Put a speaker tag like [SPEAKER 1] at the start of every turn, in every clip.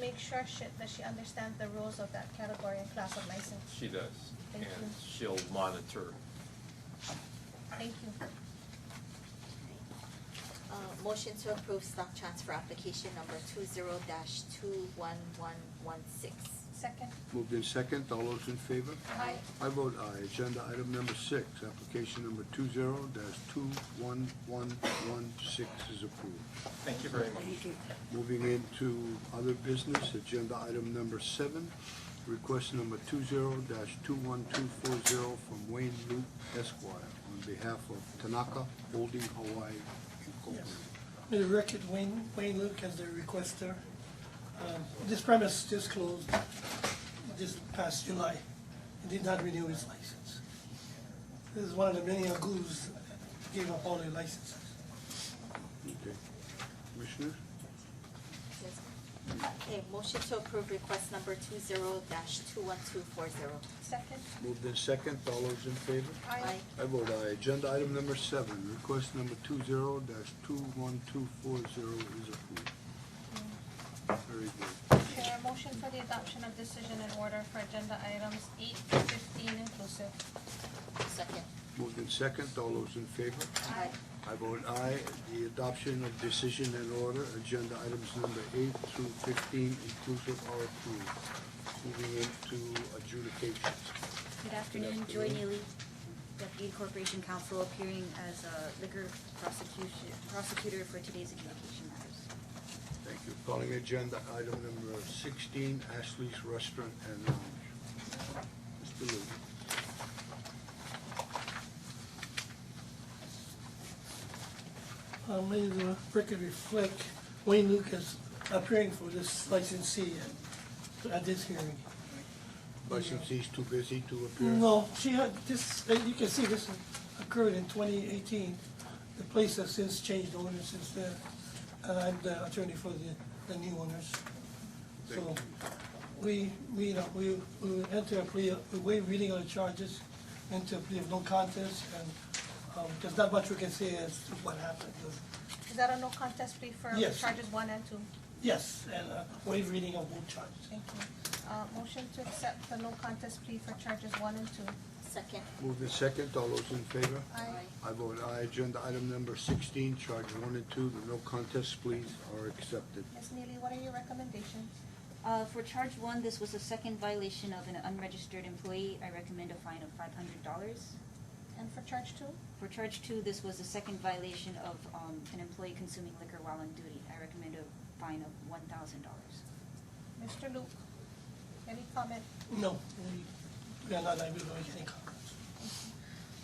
[SPEAKER 1] make sure she, that she understands the rules of that category and class of license.
[SPEAKER 2] She does,
[SPEAKER 1] Thank
[SPEAKER 2] and
[SPEAKER 1] you.
[SPEAKER 2] she'll monitor.
[SPEAKER 1] Thank you.
[SPEAKER 3] Uh, motion to approve stock transfer application number two zero dash two one one one six.
[SPEAKER 1] Second.
[SPEAKER 4] Moved in second, all those in favor?
[SPEAKER 1] Aye.
[SPEAKER 4] I vote aye. Agenda item number six, application number two zero dash two one one one six is approved.
[SPEAKER 2] Thank you very much.
[SPEAKER 4] Moving into other business, agenda item number seven, request number two zero dash two one two four zero from Wayne Luke Esquire on behalf of Tanaka Holding Hawaii Incorporated.
[SPEAKER 5] For the record, Wayne, Wayne Luke as the requester. Um, This premise just closed this past July and did not renew its license. This is one of the many Agus gave up all their licenses.
[SPEAKER 4] Okay. Commissioners?
[SPEAKER 3] Yes, ma'am. Okay, motion to approve request number two zero dash two one two four zero.
[SPEAKER 1] Second.
[SPEAKER 4] Moved in second, all those in favor?
[SPEAKER 1] Aye.
[SPEAKER 4] I vote aye. Agenda item number seven, request number two zero dash two one two four zero is approved. Very good.
[SPEAKER 1] Chair, motion for the adoption of decision and order for agenda items eight to fifteen inclusive.
[SPEAKER 3] Second.
[SPEAKER 4] Moved in second, all those in favor?
[SPEAKER 3] Aye.
[SPEAKER 4] I vote aye. The adoption of decision and order, agenda items number eight through fifteen inclusive are approved. Moving into adjudications.
[SPEAKER 6] Good afternoon, Joy Neely, Deputy Corporation Counsel, appearing as a liquor prosecution, prosecutor for today's adjudication matters.
[SPEAKER 4] Thank you. Calling agenda item number sixteen, Ashley's Restaurant and Lounge. Mr. Luke.
[SPEAKER 5] Uh, May the record reflect Wayne Luke is appearing for this licensee at- at this hearing.
[SPEAKER 4] Licensee's too busy to appear.
[SPEAKER 5] No, she had, this, uh, you can see this occurred in twenty eighteen. The place has since changed owners since then, and I'm the attorney for the, the new owners. So,
[SPEAKER 4] Thank
[SPEAKER 5] we, we, you know, we, we enter a plea, we waive reading of the charges, enter a plea of no contest, and, um, there's not much we can say as to what happened.
[SPEAKER 1] Is that a no contest plea for
[SPEAKER 5] Yes.
[SPEAKER 1] charges one and two?
[SPEAKER 5] Yes, and uh, waive reading of both charges.
[SPEAKER 1] Thank you. Uh, motion to accept the no contest plea for charges one and two.
[SPEAKER 3] Second.
[SPEAKER 4] Moved in second, all those in favor?
[SPEAKER 1] Aye.
[SPEAKER 4] I vote aye. Agenda item number sixteen, charge one and two, the no contest pleas are accepted.
[SPEAKER 1] Ms. Neely, what are your recommendations?
[SPEAKER 6] Uh, for charge one, this was a second violation of an unregistered employee. I recommend a fine of five hundred dollars.
[SPEAKER 1] And for charge two?
[SPEAKER 6] For charge two, this was a second violation of, um, an employee consuming liquor while on duty. I recommend a fine of one thousand dollars.
[SPEAKER 1] Mr. Luke, any comment?
[SPEAKER 5] No, we, we are not able to make any comments.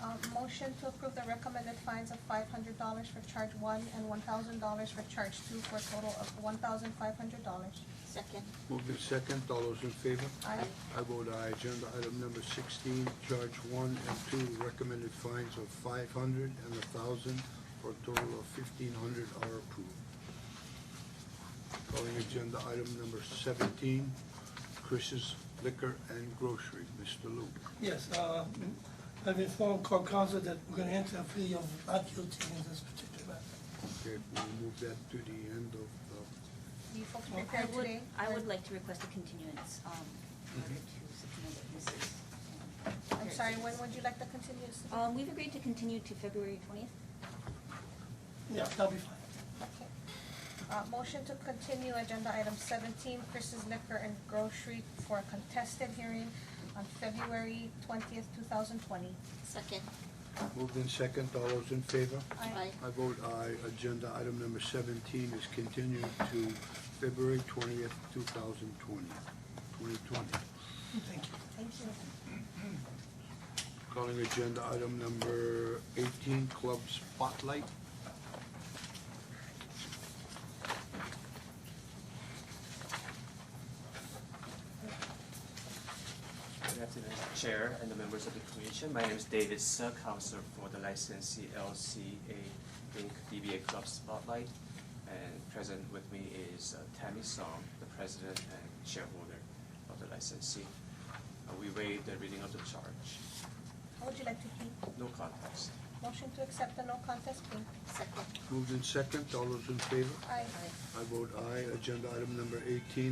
[SPEAKER 1] Um, motion to approve the recommended fines of five hundred dollars for charge one and one thousand dollars for charge two for a total of one thousand five hundred dollars.
[SPEAKER 3] Second.
[SPEAKER 4] Moved in second, all those in favor?
[SPEAKER 1] Aye.
[SPEAKER 4] I vote aye. Agenda item number sixteen, charge one and two, recommended fines of five hundred and a thousand, for a total of fifteen hundred are approved. Calling agenda item number seventeen, Chris's Liquor and Grocery, Mr. Luke.
[SPEAKER 5] Yes, uh, I've informed court counsel that we're gonna enter a plea of not guilty in this particular matter.
[SPEAKER 4] Okay, we'll move that to the end of
[SPEAKER 1] Do you folks
[SPEAKER 5] Well,
[SPEAKER 6] I
[SPEAKER 1] prepared
[SPEAKER 6] would,
[SPEAKER 1] today?
[SPEAKER 6] I would like to request a continuance, um, in order to subpoena witnesses. um,
[SPEAKER 1] I'm
[SPEAKER 6] here.
[SPEAKER 1] sorry, when would you like the continuance? to be?
[SPEAKER 6] Um, we've agreed to continue to February twentieth.
[SPEAKER 5] Yeah, that'll be fine.
[SPEAKER 1] Okay. Uh, motion to continue agenda item seventeen, Chris's Liquor and Grocery for a contested hearing on February twentieth, two thousand twenty.
[SPEAKER 3] Second.
[SPEAKER 4] the, moved in second, all those in favor?
[SPEAKER 3] Aye.
[SPEAKER 4] I vote aye. Agenda item number seventeen is continued to February twentieth, two thousand twenty, twenty twenty.
[SPEAKER 5] Thank you.
[SPEAKER 1] Thank you.
[SPEAKER 4] Calling agenda item number eighteen, Club Spotlight.
[SPEAKER 7] Good afternoon, Chair and the members of the Commission. My name is David Sir, Counselor for the licensee LCA Inc. DBA Club Spotlight. And present with me is uh, Tammy Song, the President and Shareholder of the licensee. Uh, We waive the reading of the charge.
[SPEAKER 1] How would you like to plead?
[SPEAKER 7] No contest.
[SPEAKER 1] Motion to accept the no contest plea.
[SPEAKER 3] Second.
[SPEAKER 4] Moved in second, all those in favor?
[SPEAKER 1] Aye.
[SPEAKER 3] Aye.
[SPEAKER 4] I vote aye. Agenda item number eighteen,